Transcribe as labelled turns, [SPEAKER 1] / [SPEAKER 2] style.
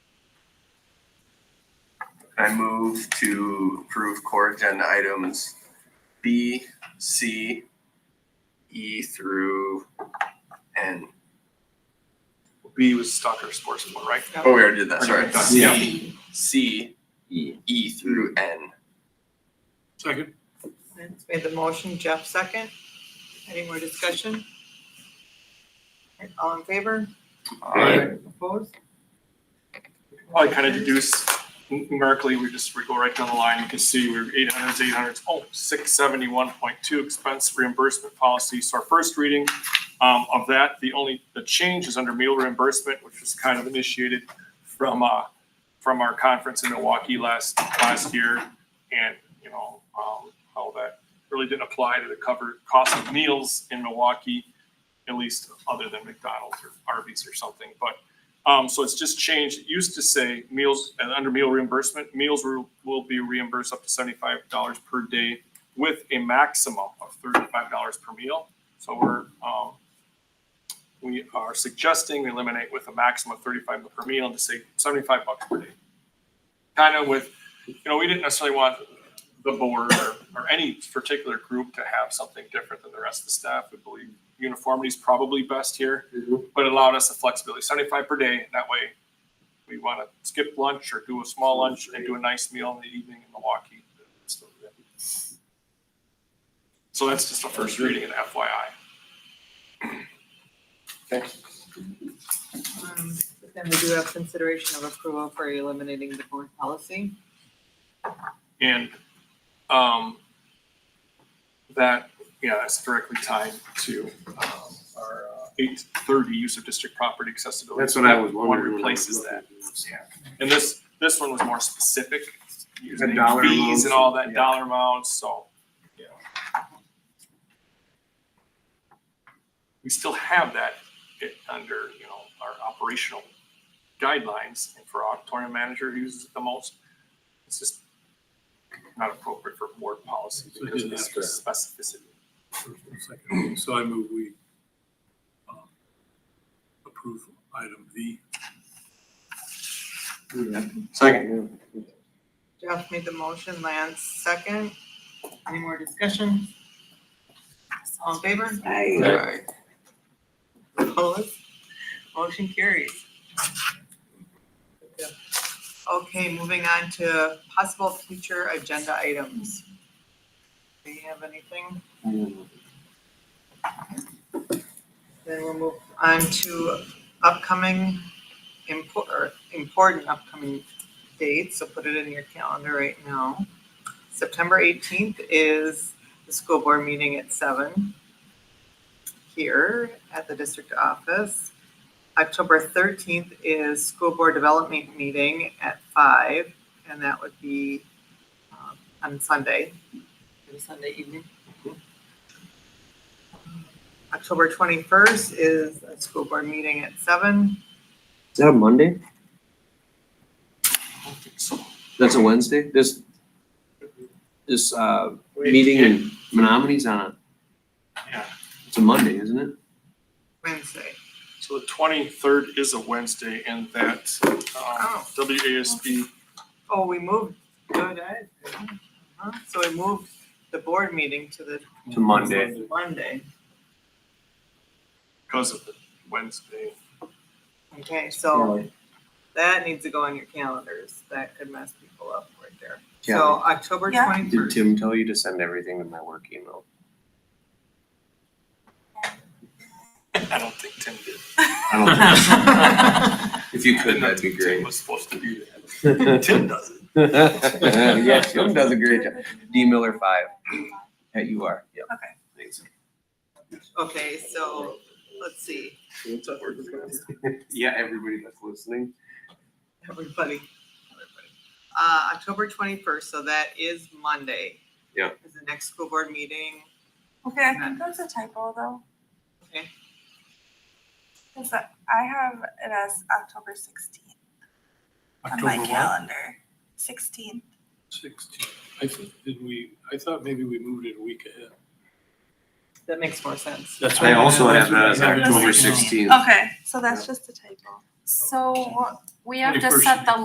[SPEAKER 1] I move to approve core agenda items B, C, E through N.
[SPEAKER 2] B was soccer sports one, right?
[SPEAKER 1] Oh, we already did that, sorry.
[SPEAKER 2] Yeah.
[SPEAKER 1] C, C, E through N.
[SPEAKER 2] Second.
[SPEAKER 3] Vince made the motion, Jeff second. Any more discussion? Alright, All in favor?
[SPEAKER 2] I
[SPEAKER 3] Opposed?
[SPEAKER 2] kind of deduce numerically, we just, we go right down the line, you can see we're eight hundreds, eight hundreds, oh, six seventy-one point two expense reimbursement policy. So our first reading um, of that, the only, the change is under meal reimbursement, which was kind of initiated from, uh, from our conference in Milwaukee last, last year. And, you know, um, how that really didn't apply to the cover cost of meals in Milwaukee, at least other than McDonald's or Arby's or something. But, um, so it's just changed. It used to say meals, and under meal reimbursement, meals will, will be reimbursed up to seventy-five dollars per day with a maximum of thirty-five dollars per meal. So we're, um, we are suggesting we eliminate with a maximum of thirty-five per meal and to say seventy-five bucks per day. Kind of with, you know, we didn't necessarily want the board or, or any particular group to have something different than the rest of the staff. We believe uniformity is probably best here, but it allowed us the flexibility, seventy-five per day. That way, we want to skip lunch or do a small lunch and do a nice meal in the evening in Milwaukee. So that's just the first reading and FYI.
[SPEAKER 3] Um, but Then we do have consideration of approval for eliminating the board policy.
[SPEAKER 2] And um, that, yeah, that's directly tied to um, our eight thirty use of district property accessibility.
[SPEAKER 4] That's
[SPEAKER 2] So
[SPEAKER 4] what I
[SPEAKER 2] that
[SPEAKER 4] was wondering.
[SPEAKER 2] One
[SPEAKER 4] when I was
[SPEAKER 2] replaces that.
[SPEAKER 4] looking at this.
[SPEAKER 2] And this, this one was more specific, using
[SPEAKER 4] dollar
[SPEAKER 2] fees
[SPEAKER 4] amounts,
[SPEAKER 2] and all that
[SPEAKER 4] yeah.
[SPEAKER 2] dollar amounts, so. yeah. We still have that it, under, you know, our operational guidelines and for auditorium manager who uses it the most. It's just not appropriate for board policy
[SPEAKER 5] So you
[SPEAKER 2] because of the
[SPEAKER 5] didn't have to-
[SPEAKER 2] specificity.
[SPEAKER 5] first and second. So I move we um, approve item V.
[SPEAKER 4] Second.
[SPEAKER 3] Jeff made the motion, Lance second. Any more discussion? All in favor?
[SPEAKER 1] Aye.
[SPEAKER 3] Opposed? Motion carries. Okay, moving on to possible future agenda items. Do you have anything? Then we'll move on to upcoming import, or important upcoming dates, so put it in your calendar right now. September eighteenth is the school board meeting at seven here at the district office. October thirteenth is school board development meeting at five, and that would be um, on Sunday, maybe Sunday evening. October twenty-first is a school board meeting at seven.
[SPEAKER 6] Is that a Monday?
[SPEAKER 2] I don't think so.
[SPEAKER 6] That's a Wednesday? This, this, uh, meeting in Menominee's on a,
[SPEAKER 2] Yeah,
[SPEAKER 6] it's a Monday, isn't it?
[SPEAKER 3] Wednesday.
[SPEAKER 2] so the twenty-third is a Wednesday and that um,
[SPEAKER 3] Oh.
[SPEAKER 2] WASB
[SPEAKER 3] Oh, we moved, good, I- uh-huh. so we moved the board meeting to the
[SPEAKER 6] It's a Monday.
[SPEAKER 3] Monday.
[SPEAKER 2] because of the Wednesday.
[SPEAKER 3] Okay, so
[SPEAKER 6] Oh.
[SPEAKER 3] That needs to go on your calendars. That could mess people up right there. So
[SPEAKER 6] Yeah.
[SPEAKER 3] October
[SPEAKER 7] Yeah.
[SPEAKER 6] Did
[SPEAKER 3] twenty-first.
[SPEAKER 6] Tim tell you to send everything to my work email?
[SPEAKER 2] I don't think Tim did.
[SPEAKER 6] I
[SPEAKER 1] If you
[SPEAKER 2] I
[SPEAKER 1] could,
[SPEAKER 2] know
[SPEAKER 1] that'd be
[SPEAKER 2] Tim
[SPEAKER 1] great.
[SPEAKER 2] Was supposed to do
[SPEAKER 6] don't
[SPEAKER 2] that.
[SPEAKER 6] think.
[SPEAKER 2] Tim does it.
[SPEAKER 6] Yeah, Tim does a great job. D Miller five, at you are, yep.
[SPEAKER 7] Okay.
[SPEAKER 6] Thanks.
[SPEAKER 3] Okay, so let's see,
[SPEAKER 4] Yeah, everybody that's listening.
[SPEAKER 3] everybody. everybody. Uh, October twenty-first, so that is Monday.
[SPEAKER 4] Yeah.
[SPEAKER 3] Is the next school board meeting.
[SPEAKER 7] Okay, I think that's a typo though.
[SPEAKER 3] Okay.
[SPEAKER 7] Cause that- I have it as October sixteenth on my
[SPEAKER 5] October what?
[SPEAKER 7] calendar. Sixteenth.
[SPEAKER 5] Sixteen. I thought, did we, I thought maybe we moved it a week ahead.
[SPEAKER 3] That makes more sense.
[SPEAKER 5] That's
[SPEAKER 4] I
[SPEAKER 5] what-
[SPEAKER 4] also have that as
[SPEAKER 5] that's what I
[SPEAKER 4] October
[SPEAKER 5] have it now.
[SPEAKER 4] sixteenth.
[SPEAKER 7] Okay, so that's just a typo.
[SPEAKER 8] So we
[SPEAKER 5] Any
[SPEAKER 8] have to
[SPEAKER 5] person
[SPEAKER 8] set the